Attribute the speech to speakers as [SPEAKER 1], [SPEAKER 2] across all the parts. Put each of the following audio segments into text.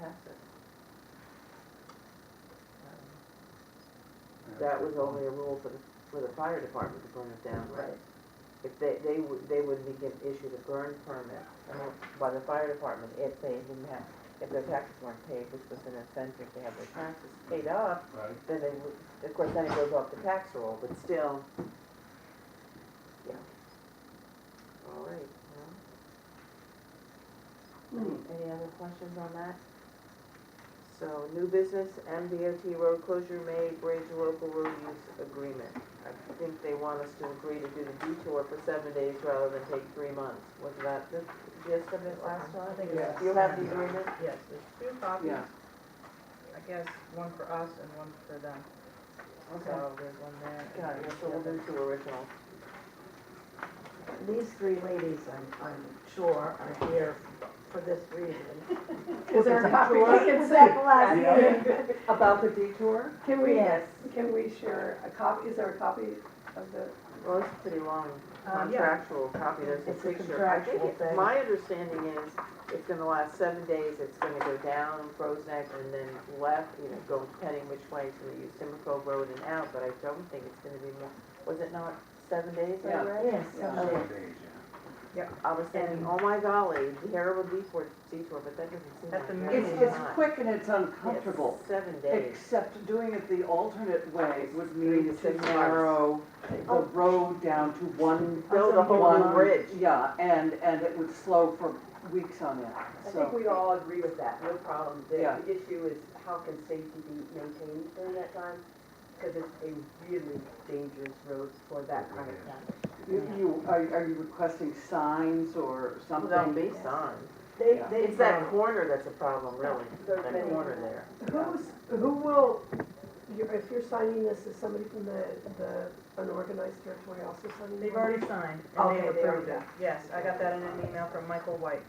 [SPEAKER 1] asset. Um, That was only a rule for the, for the fire department to burn it down, right? If they, they would, they would be given, issued a burn permit uh, by the fire department if they didn't have, if their taxes weren't paid, which was an incentive to have their taxes paid off,
[SPEAKER 2] Right,
[SPEAKER 1] then they would, of course, then it goes off the tax roll, but still, yeah. All right, well. Any any other questions on that? So, new business, MDOT road closure May bridge local road use agreement. I think they want us to agree to do the detour for seven days rather than take three months. Was that the gist of it last time?
[SPEAKER 3] I think
[SPEAKER 4] Yes.
[SPEAKER 1] Do you have the agreement?
[SPEAKER 3] Yes, there's two copies,
[SPEAKER 4] Yeah.
[SPEAKER 3] I guess, one for us and one for them. So there's one there. and
[SPEAKER 1] Got it, so we'll do two originals.
[SPEAKER 4] These three ladies, I'm, I'm sure, are here for this reason. Is there a copy we can send last
[SPEAKER 1] About the detour?
[SPEAKER 5] Can we,
[SPEAKER 1] Yes.
[SPEAKER 5] can we share a copy, is there a copy of the,
[SPEAKER 1] Well, it's pretty long
[SPEAKER 3] Um, yeah.
[SPEAKER 1] contractual copy, there's a
[SPEAKER 4] It's a
[SPEAKER 1] picture. I think
[SPEAKER 4] contractual
[SPEAKER 1] it-
[SPEAKER 4] thing.
[SPEAKER 1] My understanding is, it's gonna last seven days, it's gonna go down Prozac and then left, you know, go depending which way, so they use Timber Cove Road and out, but I don't think it's gonna be more, was it not seven days I
[SPEAKER 3] Yeah.
[SPEAKER 1] read?
[SPEAKER 4] Yes,
[SPEAKER 5] Yeah.
[SPEAKER 4] okay.
[SPEAKER 2] seven days, yeah.
[SPEAKER 1] I was thinking, oh my golly, terrible detour, detour, but that doesn't seem
[SPEAKER 3] At
[SPEAKER 1] like
[SPEAKER 3] the
[SPEAKER 1] very
[SPEAKER 3] minimum.
[SPEAKER 6] It's,
[SPEAKER 1] much.
[SPEAKER 6] it's quick and
[SPEAKER 1] It's
[SPEAKER 6] it's uncomfortable,
[SPEAKER 1] Seven days.
[SPEAKER 6] except doing it the alternate way would mean to
[SPEAKER 1] Three to six
[SPEAKER 6] narrow the
[SPEAKER 1] Oh.
[SPEAKER 6] road down to one.
[SPEAKER 1] Build a whole new
[SPEAKER 6] one-
[SPEAKER 1] bridge.
[SPEAKER 6] Yeah, and, and it would slow for weeks on
[SPEAKER 7] I
[SPEAKER 6] end,
[SPEAKER 7] think
[SPEAKER 6] so.
[SPEAKER 7] we all agree with that, no problem. The
[SPEAKER 6] Yeah.
[SPEAKER 7] the issue is how can safety be maintained during that time? Because it's a really dangerous road for that kind of traffic.
[SPEAKER 6] You, you- are, are you requesting signs or something?
[SPEAKER 1] There'll be signs.
[SPEAKER 7] They,
[SPEAKER 6] Yeah.
[SPEAKER 7] they.
[SPEAKER 1] It's that corner that's a problem, really,
[SPEAKER 7] There's
[SPEAKER 1] that
[SPEAKER 7] many.
[SPEAKER 1] corner there.
[SPEAKER 5] who's, who will, you're- if you're signing this, is somebody from the, the unorganized territory also signing?
[SPEAKER 3] They've
[SPEAKER 5] one?
[SPEAKER 3] already signed and
[SPEAKER 5] Okay,
[SPEAKER 3] they've
[SPEAKER 5] they
[SPEAKER 3] approved it.
[SPEAKER 5] already-
[SPEAKER 3] Yes, I got that in an email from Michael White,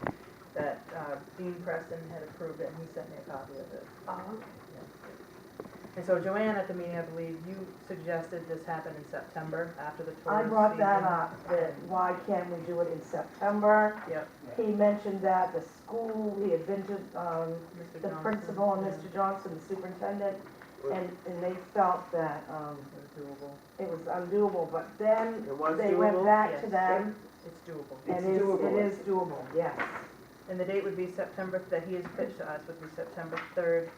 [SPEAKER 3] that uh, Dean Preston had approved it and he sent me a copy of it.
[SPEAKER 5] Oh, okay.
[SPEAKER 3] And so Joanne, at the meeting, I believe, you suggested this happen in September after the
[SPEAKER 4] I
[SPEAKER 3] tourist season.
[SPEAKER 4] brought that up, that why can't we do it in September?
[SPEAKER 3] Yep.
[SPEAKER 4] He mentioned that the school, he had been to, um,
[SPEAKER 3] Mr.
[SPEAKER 4] the
[SPEAKER 3] Johnson,
[SPEAKER 4] principal and
[SPEAKER 3] yeah,
[SPEAKER 4] Mr. Johnson, the superintendent,
[SPEAKER 1] Right.
[SPEAKER 4] and, and they felt that, um,
[SPEAKER 3] It was doable.
[SPEAKER 4] it was undoable, but then
[SPEAKER 1] It was
[SPEAKER 4] they went
[SPEAKER 1] doable?
[SPEAKER 4] back to
[SPEAKER 3] Yes.
[SPEAKER 4] them
[SPEAKER 3] It's doable.
[SPEAKER 6] It's
[SPEAKER 4] and it's,
[SPEAKER 6] doable.
[SPEAKER 4] it is doable, yes.
[SPEAKER 3] And the date would be September, that he has pitched to us would be September third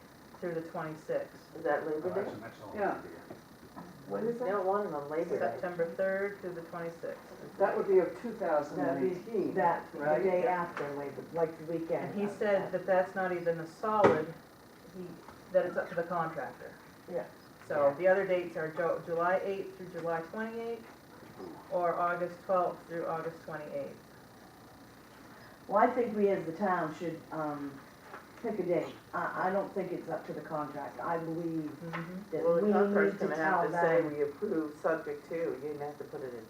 [SPEAKER 3] through the twenty-sixth.
[SPEAKER 1] Is that
[SPEAKER 2] Oh,
[SPEAKER 1] Labor Day?
[SPEAKER 2] That's an excellent
[SPEAKER 6] Yeah.
[SPEAKER 2] idea.
[SPEAKER 4] What is
[SPEAKER 1] They don't want them on Labor Day.
[SPEAKER 3] September third through the twenty-sixth.
[SPEAKER 6] That would be of two thousand and eighteen.
[SPEAKER 4] That, the
[SPEAKER 6] Right.
[SPEAKER 4] day after Labor, like the weekend.
[SPEAKER 3] And he said that that's not even a solid, he, that it's up to the contractor.
[SPEAKER 4] Yeah.
[SPEAKER 3] So the other dates are Ju- July eighth through July twenty-eighth, or August twelfth through August twenty-eighth.
[SPEAKER 4] Well, I think we as the town should, um, pick a date. I, I don't think it's up to the contract. I believe that
[SPEAKER 1] Well,
[SPEAKER 4] we
[SPEAKER 1] the contractor's
[SPEAKER 4] need to
[SPEAKER 1] gonna have
[SPEAKER 4] tell
[SPEAKER 1] to say,
[SPEAKER 4] them.
[SPEAKER 1] we approve subject to, you didn't have to put it in,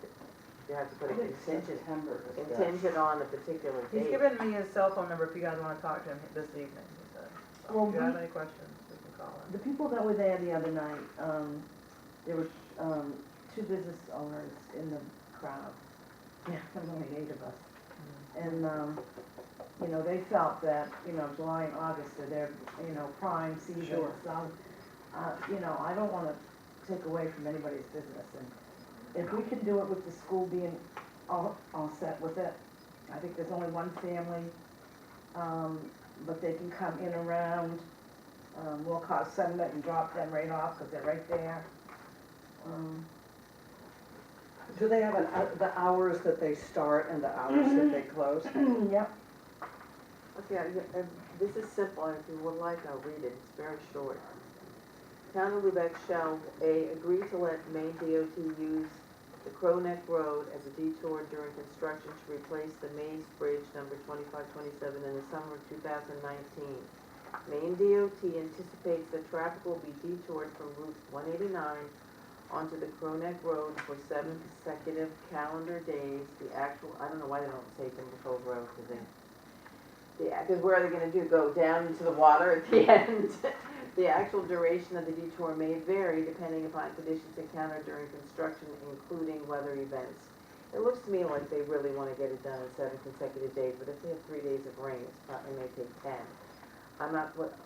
[SPEAKER 1] you have to put
[SPEAKER 6] I
[SPEAKER 1] it
[SPEAKER 6] think
[SPEAKER 1] contingent,
[SPEAKER 6] September is best.
[SPEAKER 1] contingent on a particular
[SPEAKER 3] He's
[SPEAKER 1] date.
[SPEAKER 3] given me his cell phone number if you guys wanna talk to him this evening, he said.
[SPEAKER 4] Well,
[SPEAKER 3] If you have
[SPEAKER 4] we,
[SPEAKER 3] any questions, we can call him.
[SPEAKER 4] the people that were there the other night, um, there were, um, two business owners in the crowd. Yeah. Something like eight of us. And, um, you know, they felt that, you know, July and August are their, you know, prime season,
[SPEAKER 6] Sure.
[SPEAKER 4] so, uh, you know, I don't wanna take away from anybody's business, and if we can do it with the school being all, all set with it, I think there's only one family, um, but they can come in around, um, we'll call Summit and drop them right off, cause they're right there. Um,
[SPEAKER 6] Do they have an, hou- the hours that they start and the hours
[SPEAKER 1] Mm-hmm.
[SPEAKER 6] that they close?
[SPEAKER 4] yep,
[SPEAKER 1] Okay, I- I- this is simple, and if you would like, I'll read it, it's very short. Town of Lubec shall, A, agree to let Maine DOT use the Crow Neck Road as a detour during construction to replace the Maze Bridge number twenty-five twenty-seven in the summer of two thousand nineteen. Maine DOT anticipates that traffic will be detoured from Route one eighty-nine onto the Crow Neck Road for seven consecutive calendar days. The actual, I don't know why they don't say Timber Cove Road, because they yeah, because where are they gonna do, go down into the water at the end? The actual duration of the detour may vary depending upon conditions encountered during construction, including weather events. It looks to me like they really wanna get it done in seven consecutive days, but if they have three days of rain, it's probably may take ten. I'm not, what,